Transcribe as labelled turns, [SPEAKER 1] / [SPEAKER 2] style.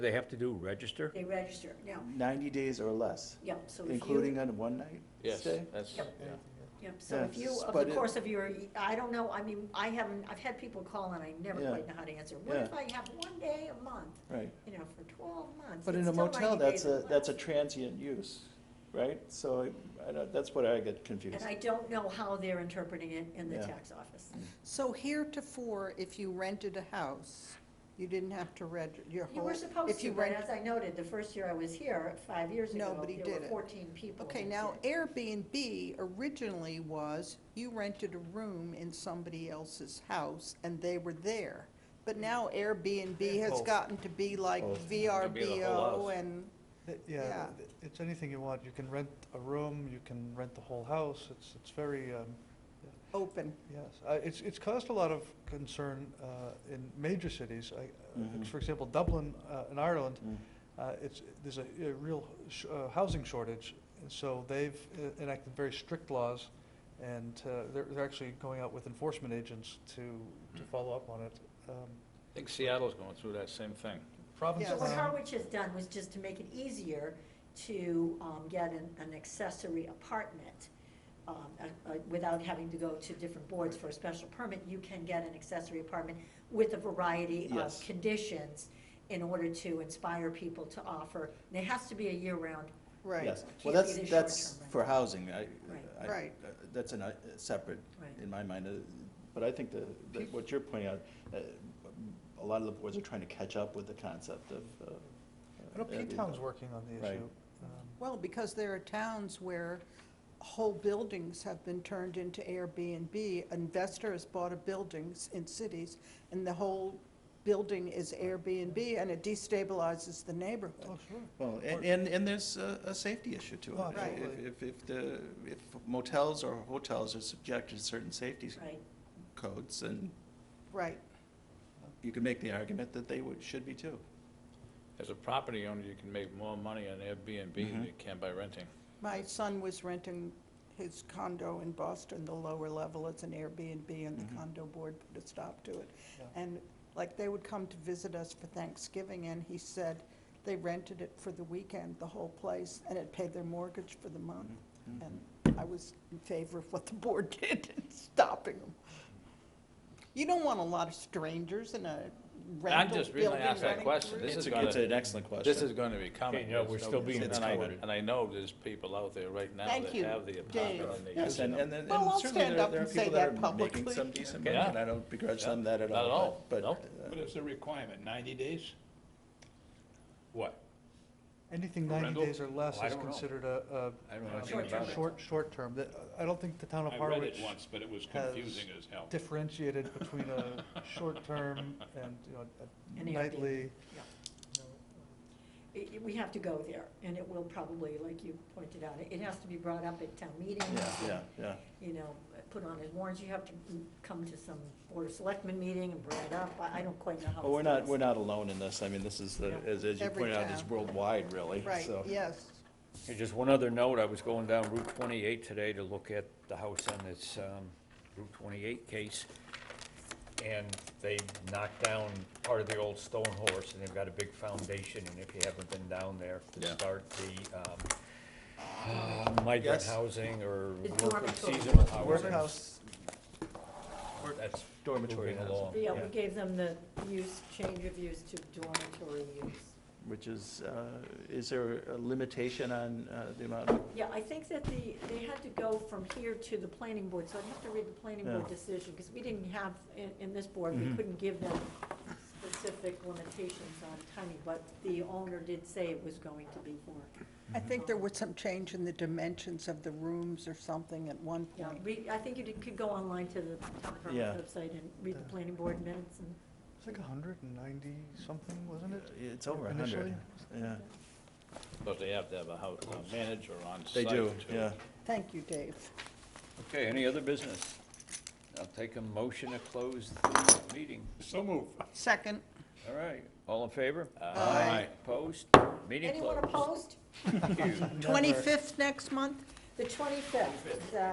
[SPEAKER 1] They have to do register?
[SPEAKER 2] They register, now,
[SPEAKER 3] 90 days or less,
[SPEAKER 2] yeah, so if you,
[SPEAKER 3] including on a one-night
[SPEAKER 4] Yes,
[SPEAKER 3] stay?
[SPEAKER 4] that's,
[SPEAKER 2] Yep.
[SPEAKER 4] yeah.
[SPEAKER 2] yeah, so if you,
[SPEAKER 3] Yes,
[SPEAKER 2] of
[SPEAKER 3] but
[SPEAKER 2] the
[SPEAKER 3] it-
[SPEAKER 2] course of your, I don't know, I mean, I haven't, I've had people call and I never
[SPEAKER 3] Yeah.
[SPEAKER 2] quite know how to answer. What
[SPEAKER 3] Yeah.
[SPEAKER 2] if I have one day a month,
[SPEAKER 3] Right.
[SPEAKER 2] you know, for twelve months?
[SPEAKER 3] But
[SPEAKER 2] it's
[SPEAKER 3] in a
[SPEAKER 2] still
[SPEAKER 3] motel,
[SPEAKER 2] 90
[SPEAKER 3] that's
[SPEAKER 2] days or
[SPEAKER 3] a, that's a
[SPEAKER 2] less.
[SPEAKER 3] transient use, right? So I- I, don't- that's what I get confused.
[SPEAKER 2] And I don't know how they're interpreting it in the
[SPEAKER 3] Yeah.
[SPEAKER 2] tax office.
[SPEAKER 5] So heretofore, if you rented a house, you didn't have to reg, your whole.
[SPEAKER 2] You were supposed
[SPEAKER 5] if
[SPEAKER 2] to,
[SPEAKER 5] you
[SPEAKER 2] but
[SPEAKER 5] rent-
[SPEAKER 2] as I noted, the first year I was here, five years ago,
[SPEAKER 5] Nobody
[SPEAKER 2] there
[SPEAKER 5] did
[SPEAKER 2] were
[SPEAKER 5] it.
[SPEAKER 2] fourteen people.
[SPEAKER 5] Okay,
[SPEAKER 2] that
[SPEAKER 5] now
[SPEAKER 2] did.
[SPEAKER 5] Airbnb originally was, you rented a room in somebody else's house and they were there. But
[SPEAKER 2] Hmm.
[SPEAKER 5] now Airbnb has
[SPEAKER 1] Both.
[SPEAKER 5] gotten to be like
[SPEAKER 1] Both. Could be the whole
[SPEAKER 5] VRBO
[SPEAKER 1] house.
[SPEAKER 5] and,
[SPEAKER 6] Uh, Yeah,
[SPEAKER 5] Yeah.
[SPEAKER 6] th- it's anything you want. You can rent a room, you can rent the whole house. It's, it's very, um,
[SPEAKER 5] open.
[SPEAKER 6] yes. Uh, It's, it's caused a lot of concern uh, in major cities. I- uh,
[SPEAKER 3] Mhm.
[SPEAKER 6] For example, Dublin uh, in Ireland,
[SPEAKER 3] Mm.
[SPEAKER 6] uh, it's, there's a a real sh- uh, housing shortage. And So they've uh, enacted very strict laws and uh, they're, they're actually going out with enforcement agents to,
[SPEAKER 3] Mm.
[SPEAKER 6] to follow up on it. Um,
[SPEAKER 4] I think Seattle's going through that same thing.
[SPEAKER 6] Provinces.
[SPEAKER 2] So what
[SPEAKER 5] Yes.
[SPEAKER 6] now-
[SPEAKER 2] Harwich has done was just to make it easier to um, get an an accessory apartment um, uh, uh, without having to go to different boards for a special permit. You can get an accessory apartment with a variety of
[SPEAKER 3] Yes.
[SPEAKER 2] conditions in order to inspire people to offer. And it has to be a year-round,
[SPEAKER 5] Right.
[SPEAKER 3] Yes,
[SPEAKER 2] Can't
[SPEAKER 3] well,
[SPEAKER 2] be
[SPEAKER 3] that's,
[SPEAKER 2] the
[SPEAKER 3] that's
[SPEAKER 2] short-term
[SPEAKER 3] for housing, I, I-
[SPEAKER 5] Right.
[SPEAKER 3] uh, that's a separate,
[SPEAKER 2] Right.
[SPEAKER 3] in my mind, uh, but I think that, that what you're pointing out, uh, a lot of the boards are trying to catch up with the concept of. uh,
[SPEAKER 6] I know
[SPEAKER 3] uh, Airbnb.
[SPEAKER 6] P-Town's working on the
[SPEAKER 3] Right.
[SPEAKER 6] issue. Um,
[SPEAKER 5] Well, because there are towns where whole buildings have been turned into Airbnb. Investor has bought a buildings in cities, and the whole building is Airbnb, and it destabilizes the
[SPEAKER 6] Oh,
[SPEAKER 5] neighborhood.
[SPEAKER 6] sure.
[SPEAKER 3] Well, and, and, and there's a, a safety issue to it.
[SPEAKER 6] Oh,
[SPEAKER 5] Right.
[SPEAKER 6] absolutely.
[SPEAKER 3] If, if- if the, if motels or hotels are subjected to certain safety
[SPEAKER 2] right?
[SPEAKER 3] codes, and
[SPEAKER 5] Right,
[SPEAKER 3] you can make the argument that they would, should be too.
[SPEAKER 4] As a property owner, you can make more money on Airbnb than
[SPEAKER 3] Mhm.
[SPEAKER 4] you can by renting.
[SPEAKER 5] my son was renting his condo in Boston, the lower level, it's an Airbnb, and the
[SPEAKER 3] Mhm.
[SPEAKER 5] condo board put a stop to it.
[SPEAKER 6] Yeah.
[SPEAKER 5] And like, they would come to visit us for Thanksgiving, and he said they rented it for the weekend, the whole place, and it paid their mortgage for the month. And I was in favor of what the board did in stopping them. You don't want a lot of strangers in a
[SPEAKER 4] I'm
[SPEAKER 5] rental
[SPEAKER 4] just really
[SPEAKER 5] building
[SPEAKER 4] asking that
[SPEAKER 5] running
[SPEAKER 4] question.
[SPEAKER 5] through.
[SPEAKER 4] This
[SPEAKER 3] It's
[SPEAKER 4] is
[SPEAKER 3] a- it's
[SPEAKER 4] gonna,
[SPEAKER 3] an excellent question.
[SPEAKER 4] this is gonna be coming.
[SPEAKER 1] Yeah, we're
[SPEAKER 4] There's no-
[SPEAKER 1] still being
[SPEAKER 4] and I-
[SPEAKER 3] recorded.
[SPEAKER 4] And I know there's people out there right now
[SPEAKER 5] Thank
[SPEAKER 4] that
[SPEAKER 5] you,
[SPEAKER 4] have the
[SPEAKER 5] Dave.
[SPEAKER 4] apartment and they use
[SPEAKER 3] Yes, and,
[SPEAKER 4] them.
[SPEAKER 3] and, and
[SPEAKER 5] Well, I'll
[SPEAKER 3] certainly
[SPEAKER 5] stand
[SPEAKER 3] there,
[SPEAKER 5] up
[SPEAKER 3] there are
[SPEAKER 5] and say
[SPEAKER 3] people that
[SPEAKER 5] that
[SPEAKER 3] are making
[SPEAKER 5] publicly.
[SPEAKER 3] some decent money,
[SPEAKER 4] Yeah.
[SPEAKER 3] and I don't begrudge them that at
[SPEAKER 4] Not
[SPEAKER 3] all.
[SPEAKER 4] at all,
[SPEAKER 3] But,
[SPEAKER 4] no.
[SPEAKER 3] uh,
[SPEAKER 7] But it's a requirement, 90 days?
[SPEAKER 1] What?
[SPEAKER 6] Anything 90
[SPEAKER 7] Rental?
[SPEAKER 6] days or less
[SPEAKER 1] Oh, I
[SPEAKER 6] is
[SPEAKER 1] don't know.
[SPEAKER 6] considered a,
[SPEAKER 4] I don't
[SPEAKER 6] a-
[SPEAKER 4] know
[SPEAKER 6] a
[SPEAKER 4] anything about it.
[SPEAKER 6] short, short term. That- I don't think the town of
[SPEAKER 7] I read
[SPEAKER 6] Harwich
[SPEAKER 7] it once, but it was
[SPEAKER 6] has
[SPEAKER 7] confusing as hell.
[SPEAKER 6] differentiated between a short term and, you know, a
[SPEAKER 2] And Airbnb.
[SPEAKER 6] nightly.
[SPEAKER 2] Yeah.
[SPEAKER 6] you know,
[SPEAKER 2] It- it- We have to go there, and it will probably, like you pointed out, it- it has to be brought up at town meetings.
[SPEAKER 3] Yeah, yeah, yeah.
[SPEAKER 2] you know, put on as warrants, you have to come to some Board of Selectmen meeting and bring it up, I, I don't quite know how.
[SPEAKER 3] Well,
[SPEAKER 2] it's
[SPEAKER 3] we're not,
[SPEAKER 2] done.
[SPEAKER 3] we're not alone in this. I mean, this is, the- as, as you
[SPEAKER 5] Every
[SPEAKER 3] pointed out, it's
[SPEAKER 5] town.
[SPEAKER 3] worldwide, really,
[SPEAKER 5] Right,
[SPEAKER 3] so.
[SPEAKER 5] yes.
[SPEAKER 1] And just one other note, I was going down Route 28 today to look at the house on this um, Route 28 case, and they knocked down part of the old stone horse, and they've got a big foundation, and if you haven't been down there to
[SPEAKER 4] Yeah.
[SPEAKER 1] start the um, uh, migrant
[SPEAKER 3] Yes.
[SPEAKER 1] housing or
[SPEAKER 2] It's
[SPEAKER 1] work-
[SPEAKER 2] dormitory.
[SPEAKER 1] seasonal housing.
[SPEAKER 6] Workhouse,
[SPEAKER 1] That's
[SPEAKER 3] Dormitory
[SPEAKER 1] moving
[SPEAKER 3] housing.
[SPEAKER 1] along.
[SPEAKER 2] Yeah, we gave them the use, change of use to dormitory use.
[SPEAKER 3] Which is, uh, is there a limitation on, uh, the amount of
[SPEAKER 2] Yeah, I think that the, they had to go from here to the planning board, so I'd have to read the planning board
[SPEAKER 3] Yeah.
[SPEAKER 2] decision, because we didn't have, in, in this board, we
[SPEAKER 3] Mhm.
[SPEAKER 2] couldn't give them specific limitations on timing, but the owner did say it was going to be for,
[SPEAKER 5] I think there was some change in the dimensions of the rooms or something at one
[SPEAKER 2] yeah,
[SPEAKER 5] point.
[SPEAKER 2] read, I think you did- could go online to the town
[SPEAKER 3] Yeah.
[SPEAKER 2] department website and read the planning board minutes and.
[SPEAKER 6] it's like 190 something, wasn't it?
[SPEAKER 3] It's over a hundred,
[SPEAKER 6] Initially?
[SPEAKER 3] yeah.
[SPEAKER 4] But they have to have a house, a manager on
[SPEAKER 3] They
[SPEAKER 4] site.
[SPEAKER 3] do,
[SPEAKER 4] to-
[SPEAKER 3] yeah.
[SPEAKER 5] Thank you, Dave.
[SPEAKER 1] Okay, any other business? I'll take a motion to close the meeting.
[SPEAKER 7] So move.
[SPEAKER 5] Second.
[SPEAKER 1] All right, all in favor?
[SPEAKER 5] Aye.
[SPEAKER 1] Opposed? Meeting
[SPEAKER 2] Anyone
[SPEAKER 1] closed.
[SPEAKER 2] opposed?
[SPEAKER 1] Thank you.
[SPEAKER 5] 25th next month?
[SPEAKER 2] The twenty-fifth,